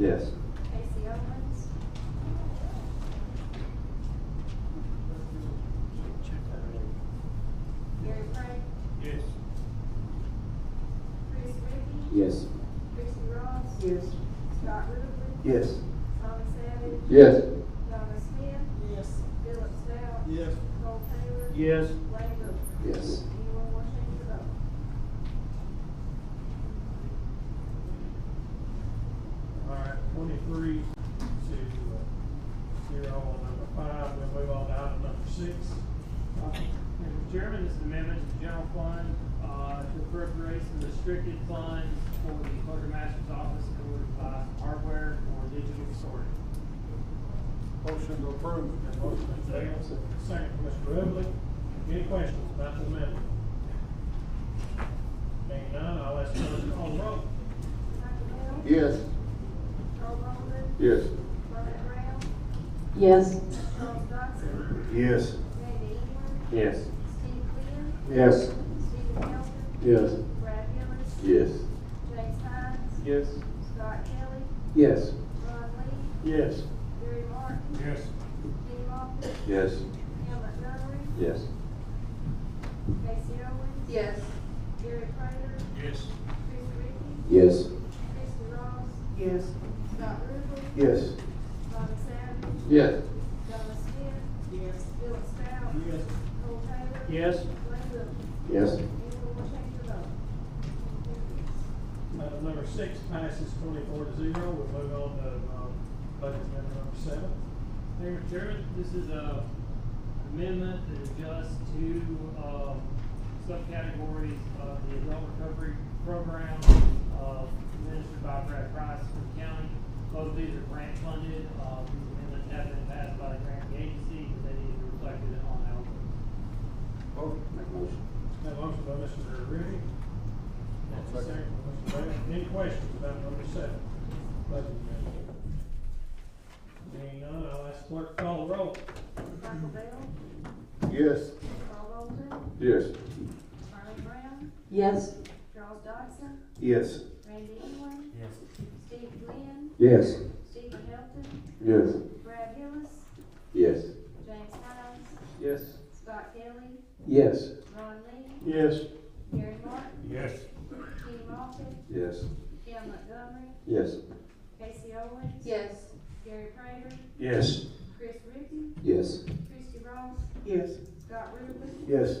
Yes. Casey Owens, Gary Frank, Yes. Chris Reapy, Yes. Chrissy Ross. Yes. Scott Rutherford, Yes. Tommy Savage, Yes. Donna Smith, Yes. Philip Stout. Yes. Cole Taylor. Yes. Lane Wilcher. Yes. Anyone want to change their vote? All right, twenty-three to uh, zero on number five, we'll move on to item number six. Uh, Mr. Chairman, this is amendment to the general fund, uh, to appropriate some restricted funds for the quartermaster's office in order to buy hardware for digital storage. Motion to approve. Motion by Dale, second by Mr. Rubley. Any questions about the amendment? Being none, I'll ask the clerk to call the roll. Michael Bell. Yes. Carl Bolden. Yes. Robert Brown. Yes. Charles Dodson. Yes. Randy England. Yes. Steve Glenn. Yes. Stephen Hilton. Yes. Brad Hillis. Yes. James Hines. Yes. Scott Kelly. Yes. Ron Lee. Yes. Gary Martin. Yes. Kenny Moffitt. Yes. Al Montgomery. Yes. Casey Owens. Yes. Gary Prater. Yes. Chris Reapy. Yes. Chrissy Ross. Yes. Scott Rutherford. Yes. Tommy Savage. Yes. Donna Smith. Yes. Philip Stout. Yes. Cole Taylor. Yes. Lane Wilcher. Yes. Anyone want to change their vote? Item uh, number six passes twenty-four to zero, we'll move on to, um, budget amendment number seven. Thank you, Mr. Chairman. This is a amendment that adjusts two, um, subcategories of the adult recovery program, uh, administered by Brad Price from the county. Both of these are grant funded, uh, these amendments have been passed by the grant agency, but they need to be reflected on our. Make a motion. Have a motion by Mr. Rudy. And a second by Mr. Bennett. Any questions about number seven? Budget amendment. Being none, I'll ask clerk to call the roll. Michael Bell. Yes. Carl Bolden. Yes. Harlan Brown. Yes. Charles Dodson. Yes. Randy England. Yes. Steve Glenn. Yes. Stephen Hilton. Yes. Brad Hillis. Yes. James Hines. Yes. Scott Kelly. Yes. Ron Lee. Yes. Gary Martin. Yes. Kenny Moffitt. Yes. Al Montgomery. Yes. Casey Owens. Yes. Gary Prater. Yes. Chris Reapy. Yes. Chrissy Ross. Yes. Scott Rutherford. Yes.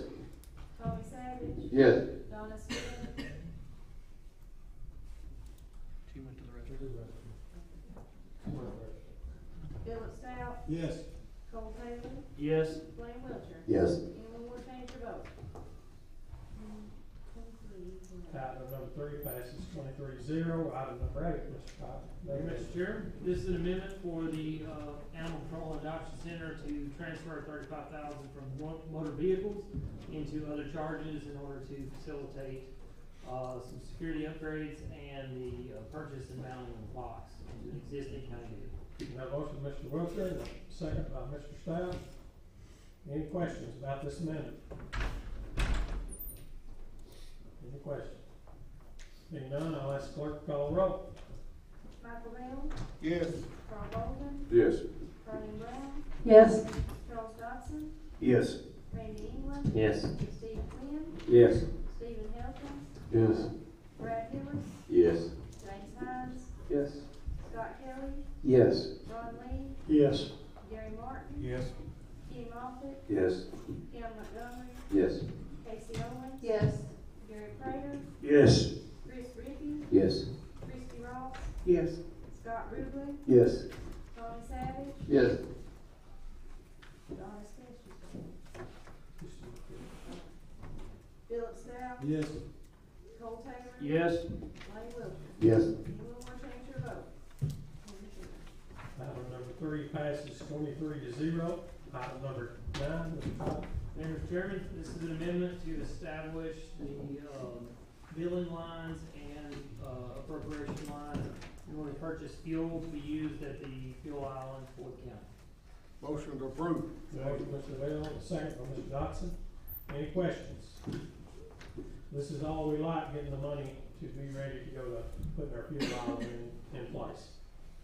Tommy Savage. Yes. Donna Smith. Philip Stout. Yes. Cole Taylor. Yes. Blaine Wiltshire. Yes. Anyone want to change their vote? Item number three passes twenty-three to zero. Item number eight, Mr. Cobb. Thank you, Mr. Chair. This is an amendment for the, uh, Animal Control Adoption Center to transfer thirty-five thousand from mo- motor vehicles into other charges in order to facilitate, uh, some security upgrades and the uh, purchase and mounting of locks into an existing county vehicle. Have a motion by Mr. Wiltshire, and a second by Mr. Stout. Any questions about this amendment? Any questions? Being none, I'll ask clerk to call the roll. Michael Bell, Yes. Carl Bolden, Yes. Carly Brown, Yes. Charles Dodson, Yes. Randy England, Yes. Steve Quinn, Yes. Stephen Hilton, Yes. Brad Hillis, Yes. James Hines, Yes. Scott Kelly, Yes. Ron Lee, Yes. Gary Martin, Yes. Kenny Moffitt, Yes. Cam Montgomery, Yes. Casey Owens, Yes. Gary Prater, Yes. Chris Reapy, Yes. Christy Ross, Yes. Scott Ruble, Yes. Tommy Savage, Yes. Donna Smith, she's gone. Philip Stout, Yes. Cole Taylor, Yes. Lane Wilcher. Yes. Anyone want to change your vote? Item number three passes twenty-three to zero. Item number nine, Mr. Cobb. Thank you, Mr. Chairman. This is an amendment to establish the, um, billing lines and, uh, appropriation lines in order to purchase fuel to be used at the fuel island for the county. Motion to approve. Motion, Mr. Bell, and a second by Mr. Dodson. Any questions? This is all we like, getting the money to be ready to go to putting our fuel island in, in place.